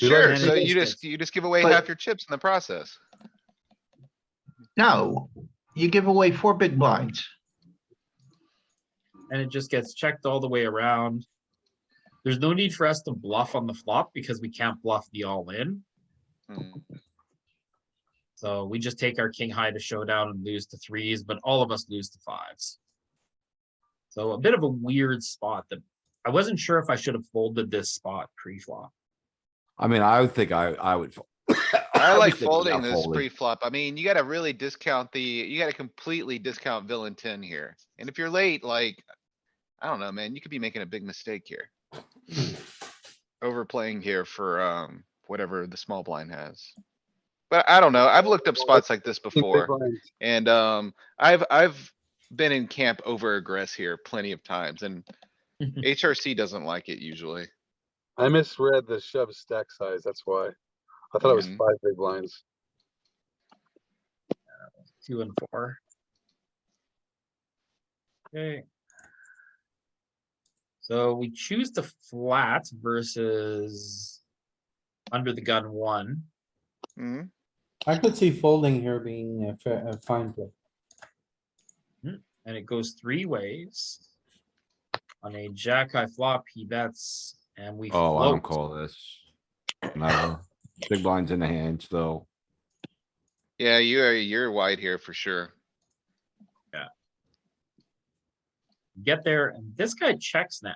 We learn Sure, hand so against you just, it. you just give away But- half your chips in the process. No, you give away four big blinds. and it just gets checked all the way around. There's no need for us to bluff on the flop because we can't bluff the all in. Mm, So we just take our king high to showdown and lose to threes, but all of us lose to fives. So a bit of a weird spot that I wasn't sure if I should have folded this spot pre-flop. I mean, I would think I, I would. fo- I'd I be like thinking folding about this pre-flop. I mean, you gotta really discount the, you gotta completely discount villain ten here. And if you're late, like, I don't know, man, you could be making a big mistake here. Overplaying here for, um, whatever the small blind has. But I don't know. I've looked up spots like this before. And um, I've, I've been in camp over aggress here plenty of times and HRC doesn't like it usually. I misread the shove stack size, that's why. I thought it was Mhm. five big blinds. Two and four. Okay. So we choose the flat versus under the gun one. Mhm. I could see folding here being a fa- a fine play. and it goes three ways. On a jack high flop, he bets and we. Oh, I don't float. call this. No, big blinds in the hand still. Yeah, you are, you're wide here for sure. Get there and this guy checks now.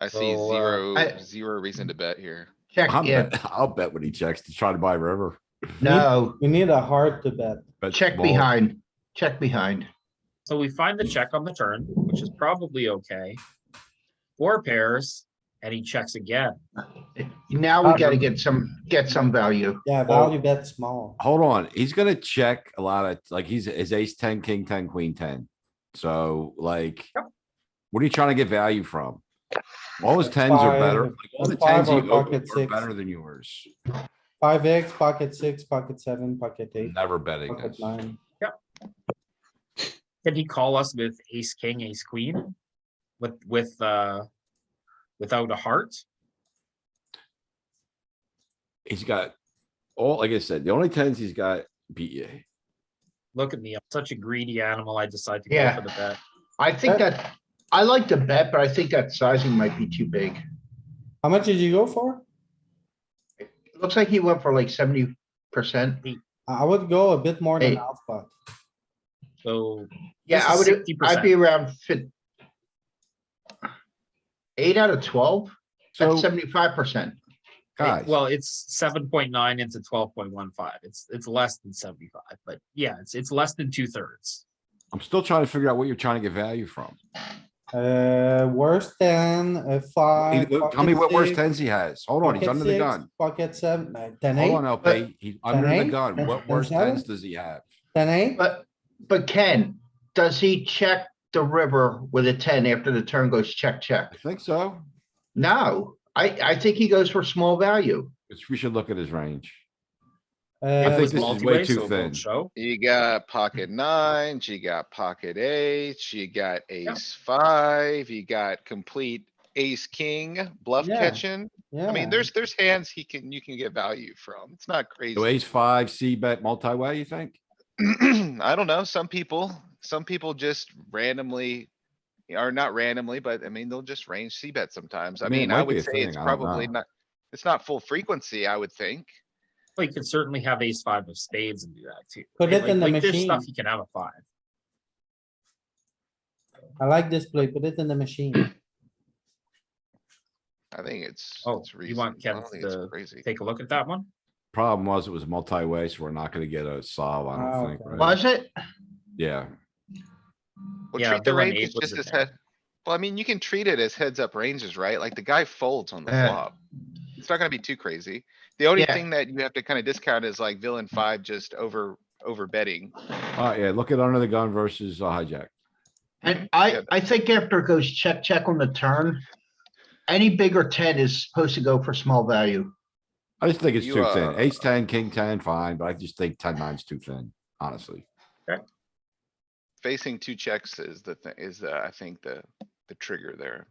I Mm-hmm. see So, uh, zero, I- zero reason to bet here. Check, I'll yeah, bet, I'll bet when he checks to try to buy river. no, We need a heart to bet. Bet check small. behind, check behind. So we find the check on the turn, which is probably okay. Four pairs and he checks again. Now we gotta get some, get some value. Yeah, Oh. value bet small. Hold on, he's gonna check a lot of, like, he's, his ace ten, king ten, queen ten. So like, Yep. what are you trying to get value from? All his tens are better. Five- like, All the a five tens he or opened pocket are six. better than yours. Five X, pocket six, pocket seven, pocket eight, Never betting pocket this. nine. Can he call us with ace, king, ace, queen? With, with, uh, without a heart? He's got, all, like I said, the only tens he's got beat you. Look at me, I'm such a greedy animal. I decide to go Yeah. for the bet. I think that, I like to bet, but I think that sizing might be too big. How much did you go for? Looks like he went for like seventy percent. I I would go a bit more than Eight. alpha. So Yeah, This I is would, 60%. I'd be around fif- Eight out of twelve, that's So, seventy-five percent. It- guys. Well, it's seven point nine into twelve point one five. It's, it's less than seventy-five, but yeah, it's, it's less than two thirds. I'm still trying to figure out what you're trying to get value from. Uh, worse than a He- five. Tell me what worse pocket six, tens he has. Hold on, he's pocket under the six, gun. Pocket seven, uh, ten Hold eight, on, LP. He's under the eight, gun. ten- What ten worse seven? tens does he have? ten eight. But, but Ken, does he check the river with a ten after the turn goes check, check? I think so. No, I, I think he goes for small value. It's- We should look at his range. uh, I It think was this is way multi-way, too so it won't thin. Show, You got pocket nines, you got pocket eights, you got Yeah. ace five, you got complete ace, king, bluff Yeah. catching. I yeah. mean, there's, there's hands he can, you can get value from. It's not So crazy. ace five, C bet multi-way, you think? I don't know, some people, some people just randomly, are not randomly, but I mean, they'll just range C bet sometimes. I I mean, it mean, might I be a would say thing, it's I don't probably know. not, it's not full frequency, I would think. Well, you can certainly have ace five of spades and do that too. Put right? it in Like- the like there's Stuff machine. you can have a five. I like this play. Put it in the machine. I think it's. Oh, it's you want reasonable. I don't Kev think it's to Crazy. Take a look at that one. Problem was it was multi-way, so we're not gonna get a solve, I Ah, don't think. okay. right? Was it? Yeah, Well, Yeah, treat the villain eight ranges was just in as there. head. Well, I mean, you can treat it as heads up ranges, right? Like the guy folds on the Yeah. flop. It's not gonna be too crazy. The only Yeah. thing that you have to kind of discount is like villain five just over, over betting. oh yeah, look at under the gun versus a hijack. And I, Good. I think after it goes check, check on the turn, any bigger ten is supposed to go for small value. I just think it's You, too thin. uh, Ace ten, king ten, fine, but I just think ten nine's too thin, honestly. Facing two checks is the, thi- is, uh, I think the, the trigger there.